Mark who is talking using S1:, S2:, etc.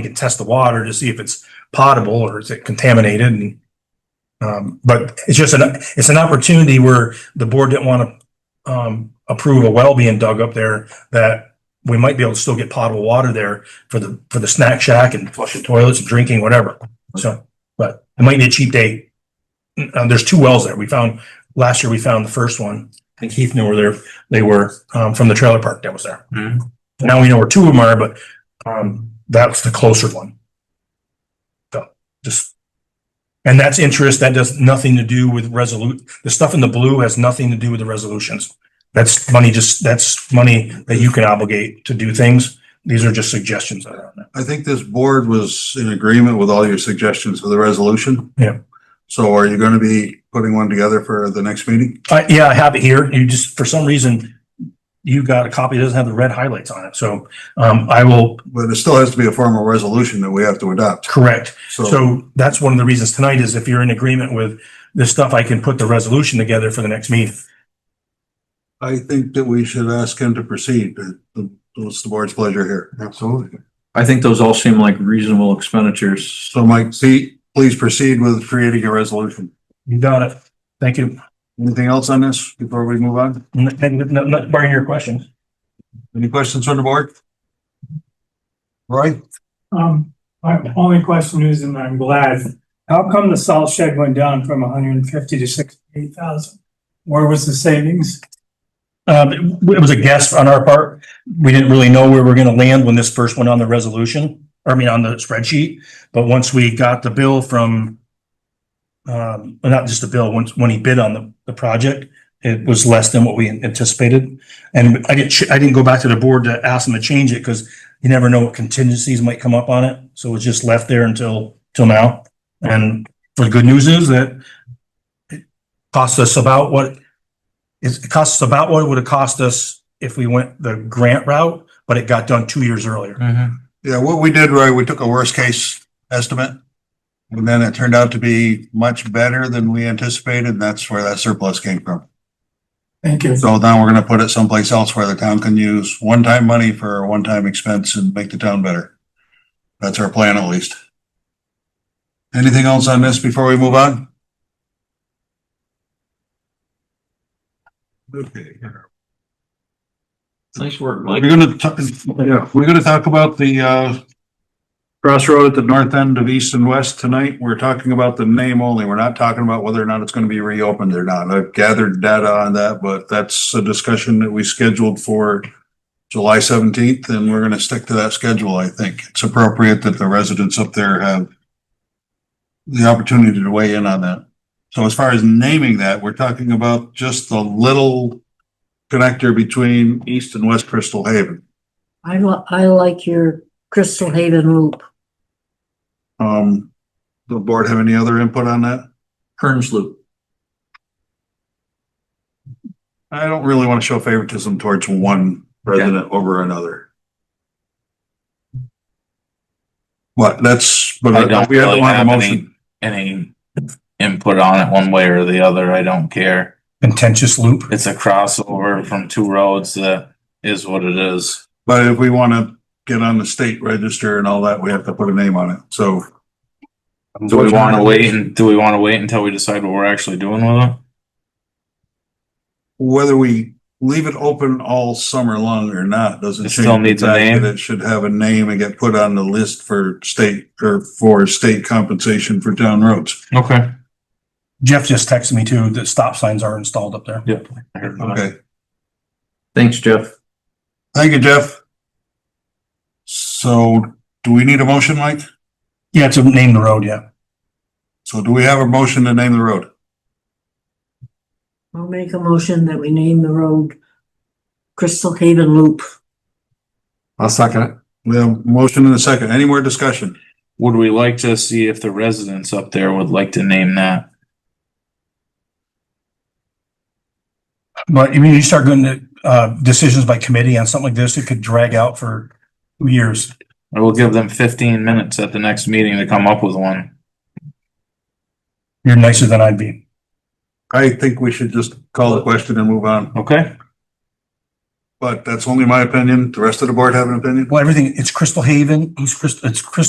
S1: you can test the water to see if it's potable or is it contaminated and um, but it's just an, it's an opportunity where the board didn't want to um, approve a well being dug up there that we might be able to still get potable water there for the, for the snack shack and flushing toilets and drinking, whatever. So, but it might be a cheap date. Uh, there's two wells there. We found, last year we found the first one and Keith knew where they're, they were, um, from the trailer park that was there.
S2: Hmm.
S1: Now we know where two of them are, but, um, that's the closer one. So, just. And that's interest. That does nothing to do with resolute, the stuff in the blue has nothing to do with the resolutions. That's money just, that's money that you can obligate to do things. These are just suggestions that are on there.
S3: I think this board was in agreement with all your suggestions for the resolution.
S1: Yeah.
S3: So are you going to be putting one together for the next meeting?
S1: I Uh, yeah, I have it here. You just, for some reason, you got a copy that doesn't have the red highlights on it. So, um, I will
S3: But it still has to be a formal resolution that we have to adopt.
S1: correct.
S3: So
S1: So that's one of the reasons tonight is if you're in agreement with this stuff, I can put the resolution together for the next meeting.
S3: I think that we should ask him to proceed. It's the board's pleasure here. Absolutely.
S2: I think those all seem like reasonable expenditures.
S3: So Mike, see, please proceed with creating a resolution.
S1: You got it. Thank you.
S3: Anything else on this before we move on?
S1: N- n- n- Not barring your questions.
S3: Any questions from the board? Roy?
S4: Um, my only question is, and I'm glad, how come the salt shed went down from hundred and fifty to sixty-eight thousand? Where was the savings?
S1: Um, it w- it was a guess on our part. We didn't really know where we we're gonna land when this first went on the resolution, or I mean, on the spreadsheet. But once we got the bill from, um, well, not just the bill, once, when he bid on the, the project, it was less than what we anticipated. And I didn't, ch- I didn't go back to the board to ask them to change it because you never know what contingencies might come up on it. So it was just left there until, till now. And the good news is that it cost us about what it's- It costs about what it would have cost us if we went the grant route, but it got done two years earlier.
S3: Yeah, what we did, Roy, we took a worst case estimate. And then it turned out to be much better than we anticipated, and that's where that surplus came from.
S4: Thank you.
S3: So now we're gonna put it someplace else where the town can use one-time money for a one-time expense and make the town better. That's our plan at least. Anything else on this before we move on? Okay.
S2: Nice work,
S3: We're gonna, t- yeah, we're gonna talk about the, uh, crossroad at the north end of east and west tonight. We're talking about the name only. We're not talking about whether or not it's gonna be reopened or not. I've gathered data on that, but that's a discussion that we scheduled for July seventeenth, and we're gonna stick to that schedule, I think. It's appropriate that the residents up there have the opportunity to weigh in on that. So as far as naming that, we're talking about just the little connector between East and West Crystal Haven.
S5: I li- I like your Crystal Haven loop.
S3: Um, the board have any other input on that?
S2: Kearns Loop.
S3: I don't really want to show favoritism towards one president over another. What, that's,
S6: I
S3: but
S6: don't
S3: we have
S6: really
S3: to have a
S6: have any-
S3: motion.
S6: any input on it one way or the other, I don't care.
S1: Contentious loop.
S6: It's a crossover from two roads that is what it is.
S3: But if we want to get on the state register and all that, we have to put a name on it. So
S6: Do we wanna wait and, do we wanna wait until we decide what we're actually doing with it?
S3: whether we leave it open all summer long or not, doesn't
S6: It
S3: change.
S6: still
S3: the
S6: needs a
S3: fact
S6: name?
S3: that It should have a name and get put on the list for state or for state compensation for town roads.
S6: Okay.
S1: Jeff just texted me too, that stop signs are installed up there.
S6: Yep.
S3: Okay,
S2: Thanks, Jeff.
S3: thank you, Jeff. So do we need a motion, Mike?
S1: Yeah, to name the road, yeah.
S3: So do we have a motion to name the road?
S5: I'll make a motion that we name the road Crystal Haven Loop.
S3: I'll second it. We have a motion and a second. Any more discussion?
S6: Would we like to see if the residents up there would like to name that?
S1: But I mean, you start going to, uh, decisions by committee on something like this, it could drag out for two years.
S6: Or we'll give them fifteen minutes at the next meeting to come up with one.
S1: You're nicer than I'd be.
S3: I think we should just call the question and move on,
S6: Okay?
S3: but that's only my opinion. The rest of the board have an opinion?
S1: Well, everything, it's Crystal Haven, it's Crystal, it's Crystal